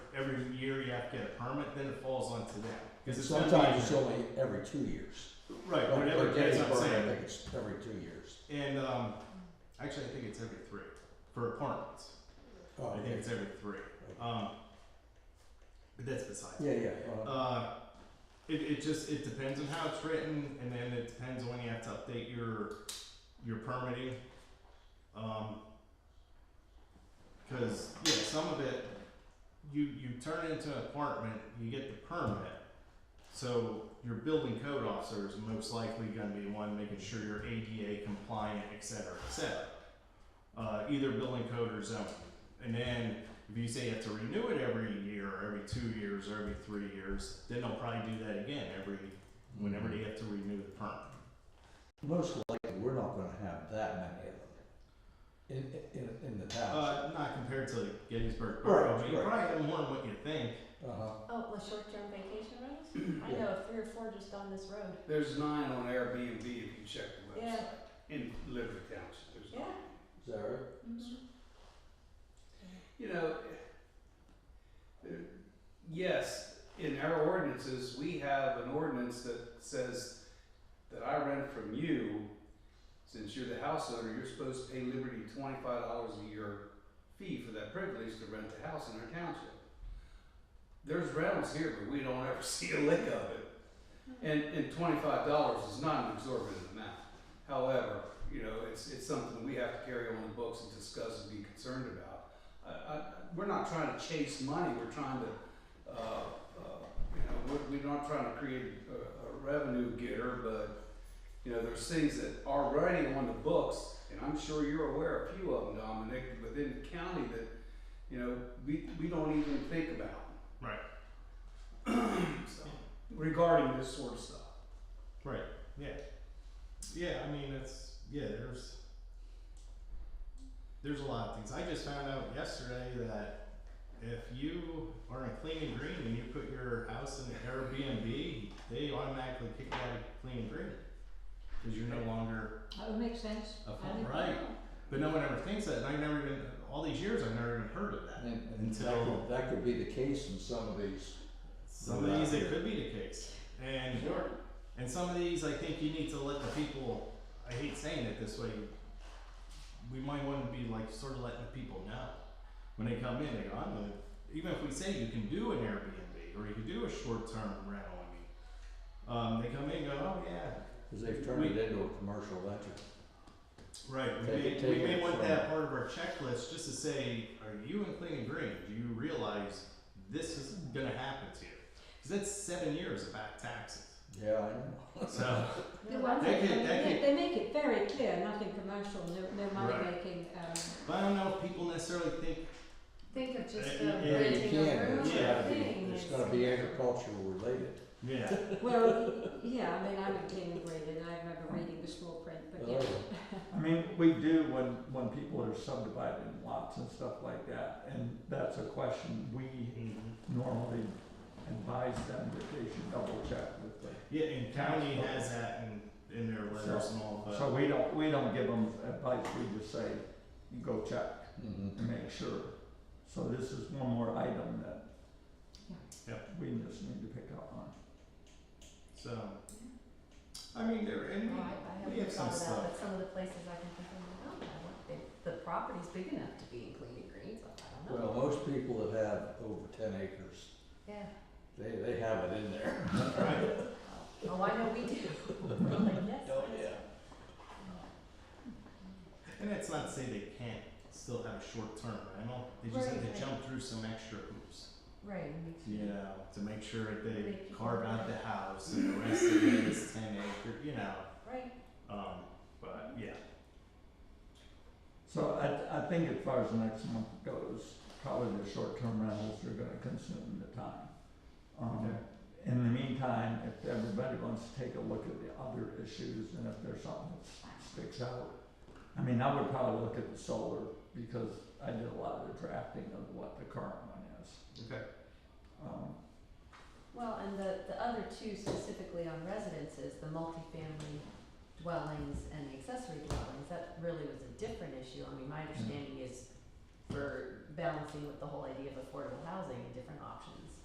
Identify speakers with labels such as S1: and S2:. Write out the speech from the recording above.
S1: every year you have to get a permit, then it falls onto them. 'Cause it's gonna be-
S2: Sometimes it's only every two years.
S1: Right,
S2: Like,
S1: whatever,
S2: like
S1: that's
S2: getting
S1: what I'm
S2: burned, I
S1: saying.
S2: think it's every two years.
S1: And, um, actually, I think it's every three, for apartments,
S2: Oh,
S1: I think
S2: okay.
S1: it's every three, um, but that's beside.
S2: Yeah, yeah, well,
S1: Uh, it, it just, it depends on how it's written, and then it depends on when you have to update your, your permitting. Um, cause, yeah, some of it, you, you turn it into an apartment, you get the permit. So your building code officer is most likely gonna be the one making sure you're ADA compliant, et cetera, et cetera. Uh, either building code or zoning. And then if you say you have to renew it every year, or every two years, or every three years, then they'll probably do that again every, whenever they have to renew the permit.
S2: most likely, we're not gonna have that many of them in, in, in the town.
S1: Uh, not compared to Gettysburg Borough,
S2: Right,
S1: but you
S2: right.
S1: probably have more than what you think.
S2: Uh-huh.
S3: Oh, the short-term vacation rentals? I know of three or four just on this road.
S4: There's nine on Airbnb if you check the website.
S3: Yeah.
S4: In Liberty Township, there's nine.
S2: Is that right?
S5: Mm-hmm.
S4: You know, there- yes, in our ordinances, we have an ordinance that says that I rent from you, since you're the house owner, you're supposed to pay Liberty twenty-five dollars a year fee for that privilege to rent the house in our township. There's rentals here, but we don't ever see a lick of it. And, and twenty-five dollars is not an exorbitant amount. However, you know, it's, it's something we have to carry on the books and discuss and be concerned about. I, I, we're not trying to chase money, we're trying to, uh, uh, you know, we're, we're not trying to create a, a revenue getter, but, you know, there's things that are already on the books, and I'm sure you're aware of a few of them, Dominic, within the county that, you know, we, we don't even think about.
S1: Right.
S4: So, regarding this sort of stuff.
S1: Right, yeah. Yeah, I mean, it's, yeah, there's, there's a lot of things. I just found out yesterday that if you are in clean and green and you put your house in an Airbnb, they automatically kick you out of clean and green. Cause you're no longer
S5: That would make sense.
S1: a
S5: I
S1: farm,
S5: think-
S1: right? But no one ever thinks that, and I never even, all these years, I've never even heard of that.
S2: And, and that
S1: Until-
S2: could, that could be the case in some of these.
S1: Some of these, it could be the case, and and some of these, I think you need to let the people. I hate saying it this way. We might want to be like sort of letting the people know when they come in. They go, I'm gonna, even if we say you can do an Airbnb or you can do a short-term rental. I mean, um, they come in, and go, oh yeah,
S2: Cause they've turned it into a commercial venture.
S1: Right, we
S2: Take
S1: may,
S2: it-
S1: we
S2: take
S1: may
S2: it
S1: want
S2: from-
S1: that part of our checklist just to say, are you in clean and green? Do you realize this is gonna happen to you? Cause that's seven years of back taxes,
S2: Yeah, I know.
S1: so,
S5: The one
S1: They
S5: thing- I
S1: could-
S5: mean,
S1: they
S5: they- they make it very clear, nothing commercial, no, no money
S1: Right.
S5: making, um,
S1: but I don't know if people necessarily think,
S3: Think of
S1: Uh,
S3: just
S1: yeah,
S3: the
S1: you
S2: Yeah, you
S3: renting
S2: can,
S3: a
S2: but
S3: room
S2: it's
S1: Yeah.
S2: gotta be,
S3: thing.
S2: it's
S3: is-
S2: gotta be agricultural related.
S1: yeah,
S5: well, yeah, I mean, I'm a clean and green and I remember reading the small print, but yeah.
S3: Oh,
S6: I mean, we do when, when people are subdivided in lots and stuff like that, and that's a question we normally advise them that they should double check with the.
S1: yeah, and county has that in, in their letters and all,
S6: So
S1: but,
S6: we don't, we don't give them advice, we just say, you go check
S2: Mhm.
S6: and make sure. So this is one more item that
S5: Yeah.
S1: Yep.
S6: we just need to pick up on.
S1: so. I mean, there, and
S3: Oh,
S1: we,
S3: I, I
S1: we
S3: haven't
S1: have some
S3: thought of that,
S1: stuff.
S3: but some of the places I can think of, oh, I want, the, the property's big enough to be in clean and green, but I don't know.
S2: Well, most people that have over ten acres,
S3: Yeah,
S2: they, they have it in there.
S1: Right,
S3: oh, I know we do, we're like, yes,
S2: Oh,
S3: yes.
S2: yeah.
S1: and that's not to say they can't still have a short-term rental, they just have
S3: Right,
S1: to
S3: right.
S1: jump through some extra hoops.
S3: Right, and we
S1: you know, to make sure that they
S3: Make people
S1: carve out the house and the rest of it is ten acre, you know,
S3: right,
S1: um, but yeah.
S6: So I, I think as far as next month goes, probably the short-term rentals are gonna consume the time. Um, in the meantime, if everybody wants to take a look at the other issues and if there's something that sticks out, I mean, I would probably look at the solar because I did a lot of the drafting of what the current one is.
S1: Okay.
S6: Um,
S3: well, and the, the other two specifically on residences, the multifamily dwellings and the accessory dwellings, that really was a different
S2: Mm.
S3: issue, I mean, my understanding is for balancing with the whole idea of affordable housing, a different